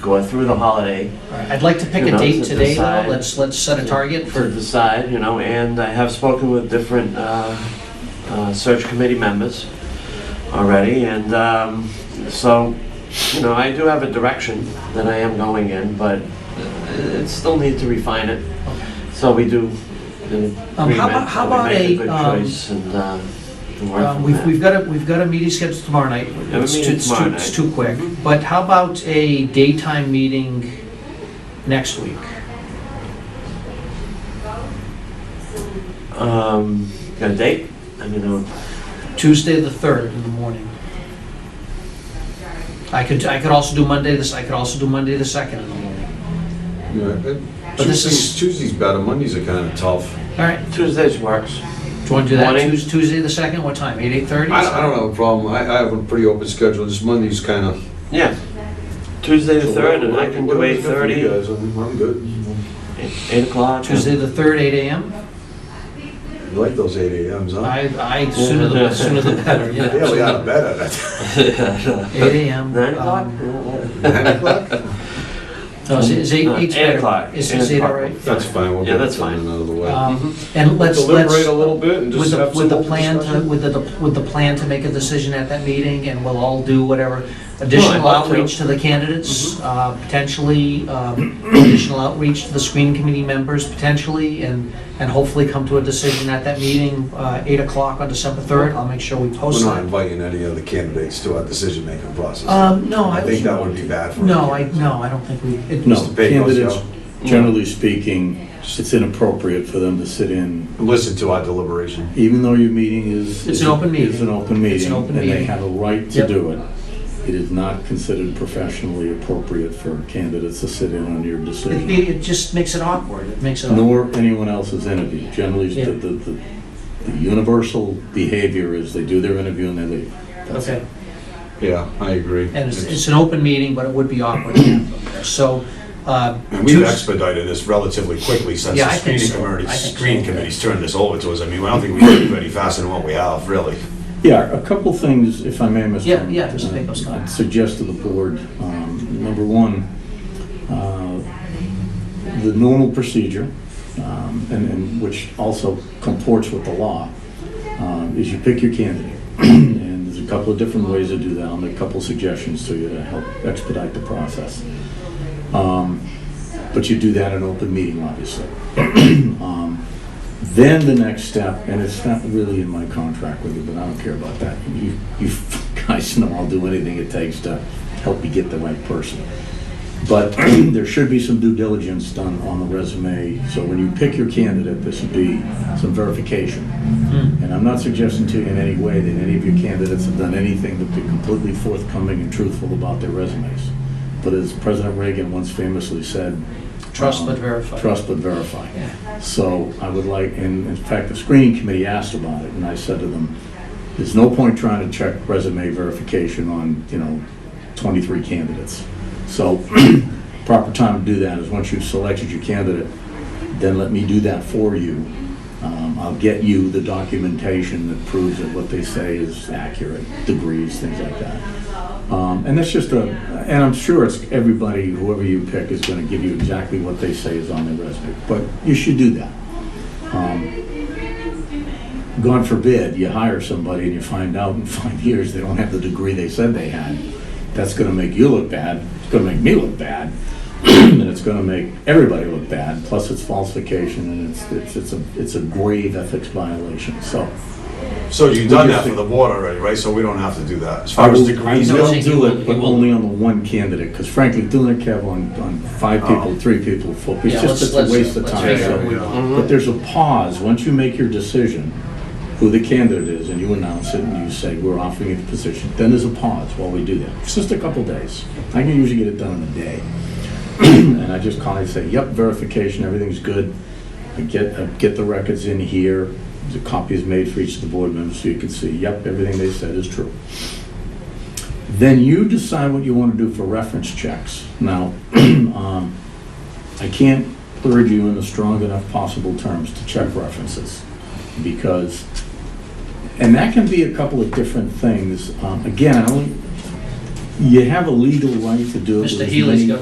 going through the holiday I'd like to pick You a know, date to today, though. decide. Let's, let's set a target to for, decide, you know, and I have spoken with different uh, uh, search committee members already, and um, so, you know, I do have a direction that I am going in, but it still need to refine it. So we do the Um, how agreement, about- how and we about make a, good um, choice and, uh, and work um, from we've, there. we've got a, we've got a meeting scheduled tomorrow night. a It's too- meeting it's too- tomorrow It's night. too quick. But how about a daytime meeting next week? Um, got a date? I mean, uh, Tuesday, the 3rd in the morning. I could, I could also do Monday, this, I could also do Monday, the 2nd in the morning. Yeah, but But this Tuesdays, is- Tuesdays better, Mondays are kind of tough. All right, Tuesdays works. do you want to do that Morning. Tues- Tuesday, the 2nd? What time, 8, 8:30? I, I don't have a problem, I, I have a pretty open schedule, just Mondays kind of. Yeah. Tuesday the third, and I can do eight thirty, guys, I'm, I'm good. eight o'clock. Tuesday, the 3rd, 8 AM? You like those eight AMs, huh? I, I, sooner the, sooner the better, yeah. Yeah, we got better. 8 AM. Nine o'clock? um, Nine o'clock? No, is- is eight, No, eight's eight better? o'clock. Is, Eight is eight all o'clock. right? That's fine, we'll Yeah, get that's it done fine. another way. Um, And let's, let's, Deliberate a little bit and with just the, have with some the open plan, to- discussion. with the, with the plan to make a decision at that meeting, and we'll all do whatever additional love to. outreach to the candidates, Mm-hmm. uh, potentially, um, additional outreach to the screening committee members, potentially, and, and hopefully come to a decision at that meeting, uh, eight o'clock on December third. I'll make sure we We're post not that. inviting any other candidates to our decision-making process. Um, no, I. I think that would be bad for. No, our I, candidates. no, I don't think we, it, No, Mr. Pecos, candidates, yeah. generally speaking, it's inappropriate for them to sit in, Listen to our deliberation. even though your meeting is. It's an open meeting. Is an open meeting. It's an open And they meeting. have a right Yep. to do it. It is not considered professionally appropriate for candidates to sit in on your it, decision, it just makes it awkward. It makes it. awkward. nor anyone else's interview. Generally, Yeah. the, the, the the universal behavior is they do their interview and they leave. That's it. Okay. Yeah, I agree. And it's, It's- it's an open meeting, but it would be awkward. So, uh, And we've Tues- expedited this relatively quickly since Yeah, the I think screening so. committee, I think so. screening committee's turned this over to us. I mean, I don't think we can do any faster than what we have, really. Yeah, a couple things, if I may, Mr. Yeah, yeah, Mr. uh, Pecos, go ahead. I'd Suggest to the board, um, number one, uh, the normal procedure, um, and, and which also comports with the law, um, is you pick your candidate. And there's a couple of different ways to do that, and a couple of suggestions to you to help expedite the process. Um, But you do that in open meeting, obviously. Um, Then the next step, and it's not really in my contract with you, but I don't care about that. You, you guys know I'll do anything it takes to help you get the right person. But there should be some due diligence done on the resume, so when you pick your candidate, there should be some verification. And I'm not suggesting to you in any way that any of your candidates have done anything to be completely forthcoming and truthful about their resumes. But as President Reagan once famously said. Trust but um, verify. Trust but verify. So I would like, and in fact, the screening committee asked about it, and I said to them, there's no point trying to check resume verification on, you know, 23 candidates. So proper time to do that is once you've selected your candidate, then let me do that for you. Um, I'll get you the documentation that proves that what they say is accurate, degrees, things like that. Um, And that's just a, and I'm sure it's everybody, whoever you pick, is going to give you exactly what they say is on their resume, but you should do that. Um, God forbid, you hire somebody and you find out in five years they don't have the degree they said they had. That's gonna make you look bad, it's gonna make me look bad, and it's gonna make everybody look bad, plus it's falsification and it's, it's, it's a, it's a grave ethics violation, so. So you've What done do you that for think? the board already, right? So we don't have to do that. As far as degrees I know. go, will do it, but only on the one candidate, because frankly, doing it, Kev, on, on Oh. five people, three people, four, people, Yeah, it's let's- just it's a let's- waste of let's time. figure out Mm-hmm. what we So- want. But there's a pause, once you make your decision, who the candidate is, and you announce it, and you say, we're offering you the position, then there's a pause while we do that. It's just a couple days. I can usually get it done in a day. And I just call and say, yep, verification, everything's good. I get, I get the records in here, the copy is made for each of the board members, so you can see, yep, everything they said is true. Then you decide what you want to do for reference checks. Now, um, I can't urge you in the strong enough possible terms to check references, because, and that can be a couple of different things. Um, Again, I only, you have a legal right to do it. Mr. with as Healy's many- got